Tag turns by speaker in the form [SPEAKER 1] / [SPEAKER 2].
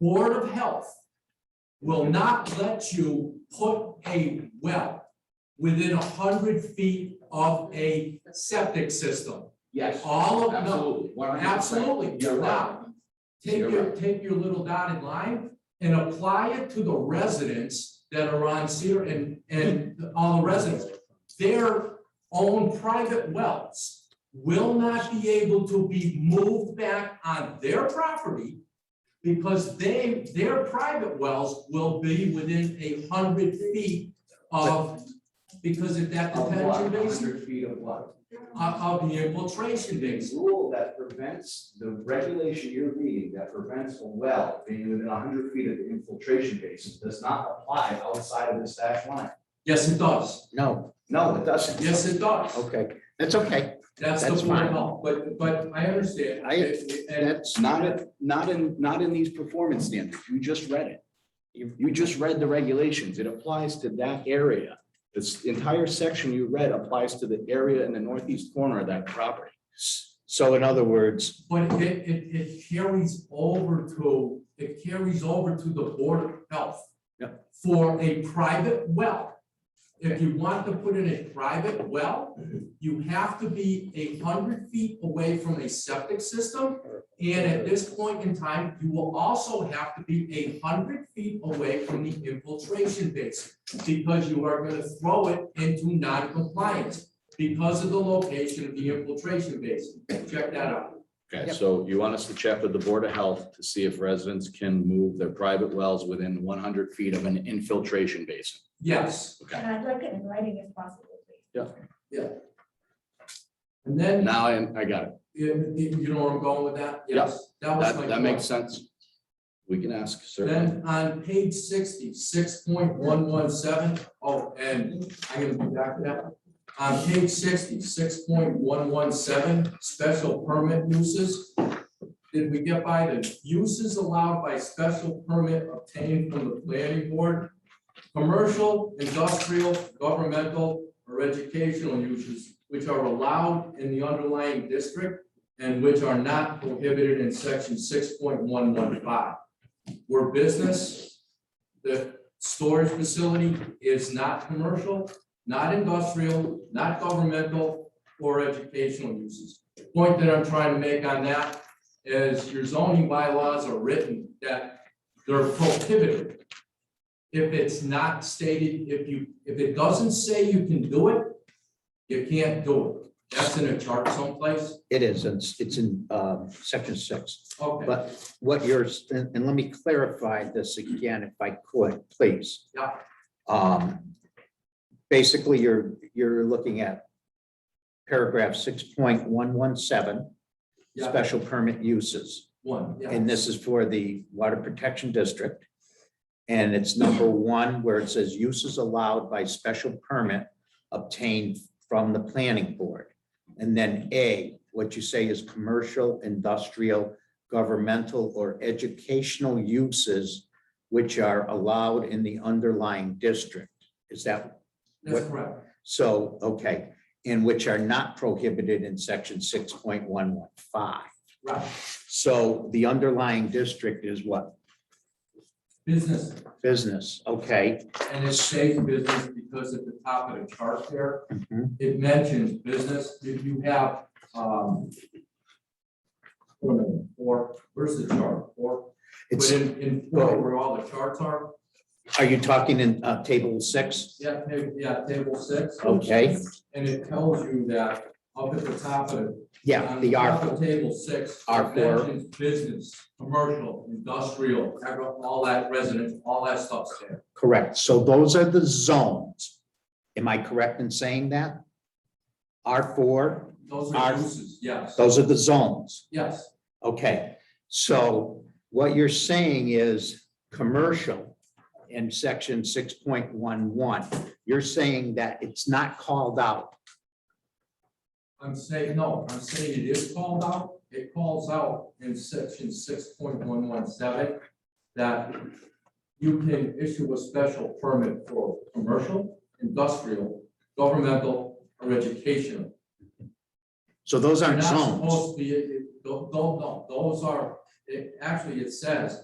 [SPEAKER 1] Board of Health will not let you put a well within a hundred feet of a septic system.
[SPEAKER 2] Yes,
[SPEAKER 1] All of, no,
[SPEAKER 2] absolutely. 100%.
[SPEAKER 1] absolutely,
[SPEAKER 2] You're right.
[SPEAKER 1] now, take your, take your little dotted line and apply it to the residents that are on Cedar and, and all the residents. Their own private wells will not be able to be moved back on their property because they, their private wells will be within a hundred feet of, because of that
[SPEAKER 2] Of what?
[SPEAKER 1] detention basin,
[SPEAKER 2] 100 feet of what?
[SPEAKER 1] of, of the infiltration basin.
[SPEAKER 2] It's a rule that prevents the regulation you're reading that prevents a well being within hundred feet of the infiltration basin does not apply outside of this dash line.
[SPEAKER 1] Yes, it does.
[SPEAKER 3] No,
[SPEAKER 2] No, it doesn't.
[SPEAKER 1] Yes, it does.
[SPEAKER 3] okay, that's okay.
[SPEAKER 1] That's the
[SPEAKER 3] That's
[SPEAKER 1] point,
[SPEAKER 3] fine.
[SPEAKER 1] no, but, but I understand.
[SPEAKER 3] I-
[SPEAKER 1] It- it- and-
[SPEAKER 3] That's not, it- not in, not in these performance standards. You just read it. You, you just read the regulations. It applies to that area. This entire section you read applies to the area in the northeast corner of that property. So in other words,
[SPEAKER 1] But it, it, it carries over to, it carries over to the Board of Health. For a private well. If you want to put in a private well, you have to be a hundred feet away from a septic system. And at this point in time, you will also have to be a hundred feet away from the infiltration basin. Because you are gonna throw it into non-compliance because of the location of the infiltration basin. Check that out.
[SPEAKER 3] okay,
[SPEAKER 4] Yep.
[SPEAKER 3] so you want us to check with the Board of Health to see if residents can move their private wells within one hundred feet of an infiltration basin.
[SPEAKER 1] Yes,
[SPEAKER 3] Okay.
[SPEAKER 4] And I'd like it in writing if possible, please.
[SPEAKER 1] and then,
[SPEAKER 3] Now I, I got it.
[SPEAKER 1] you, you- you know where I'm going with that?
[SPEAKER 3] Yep.
[SPEAKER 1] Yes, that was my.
[SPEAKER 3] That, that makes
[SPEAKER 1] point.
[SPEAKER 3] sense. We can ask, certainly.
[SPEAKER 1] Then on page 60, 6.117. Oh, and I am going back to that. On page 60, 6.117, special permit uses. Did we get by the uses allowed by special permit obtained from the planning board? Commercial, industrial, governmental, or educational uses which are allowed in the underlying district and which are not prohibited in section six point one one five. Where business, the storage facility is not commercial, not industrial, not governmental, or educational uses. Point that I'm trying to make on that is your zoning bylaws are written that they're prohibited. If it's not stated, if you, if it doesn't say you can do it, you can't do it. That's in a chart someplace.
[SPEAKER 5] It is, it's, it's in um, section six,
[SPEAKER 1] Okay.
[SPEAKER 5] but what yours, and and let me clarify this again if I could, please.
[SPEAKER 1] Yeah.
[SPEAKER 5] Um, Basically, you're, you're looking at paragraph six point one one seven,
[SPEAKER 1] Yeah,
[SPEAKER 5] special permit uses.
[SPEAKER 1] one, yeah.
[SPEAKER 5] And this is for the Water Protection District. And it's number one where it says uses allowed by special permit obtained from the planning board. And then A, what you say is commercial, industrial, governmental, or educational uses which are allowed in the underlying district. Is that
[SPEAKER 1] That's
[SPEAKER 5] what-
[SPEAKER 1] correct.
[SPEAKER 5] so? Okay, and which are not prohibited in section six point one one five.
[SPEAKER 1] Right.
[SPEAKER 5] So the underlying district is what?
[SPEAKER 1] Business,
[SPEAKER 5] Business, okay.
[SPEAKER 1] and it stays business because at the top of the chart there,
[SPEAKER 5] Mhm.
[SPEAKER 1] it mentions business, if you have, um. wait a minute, Four, where's the chart, four?
[SPEAKER 5] It's,
[SPEAKER 1] Within, in four, where all the charts are,
[SPEAKER 5] are you talking in uh, table six?
[SPEAKER 1] yeah, table, yeah, table six,
[SPEAKER 5] Okay,
[SPEAKER 1] and it tells you that up at the top of the.
[SPEAKER 5] yeah,
[SPEAKER 1] on
[SPEAKER 5] the
[SPEAKER 1] top
[SPEAKER 5] R,
[SPEAKER 1] of Table six. it
[SPEAKER 5] R four.
[SPEAKER 1] mentions Business, commercial, industrial, agri- all that residence, all that stuff's there,
[SPEAKER 5] correct. So those are the zones. Am I correct in saying that? R four,
[SPEAKER 1] those are
[SPEAKER 5] R-
[SPEAKER 1] uses, yes,
[SPEAKER 5] those are the zones.
[SPEAKER 1] yes,
[SPEAKER 5] Okay, so what you're saying is commercial in section six point one one. You're saying that it's not called out.
[SPEAKER 1] I'm saying, no, I'm saying it is called out, it calls out in section six point one one seven that you can issue a special permit for commercial, industrial, governmental, or educational.
[SPEAKER 5] So those
[SPEAKER 1] You're
[SPEAKER 5] aren't
[SPEAKER 1] not
[SPEAKER 5] zones.
[SPEAKER 1] supposed to be, don't, don't, those are, it, actually, it says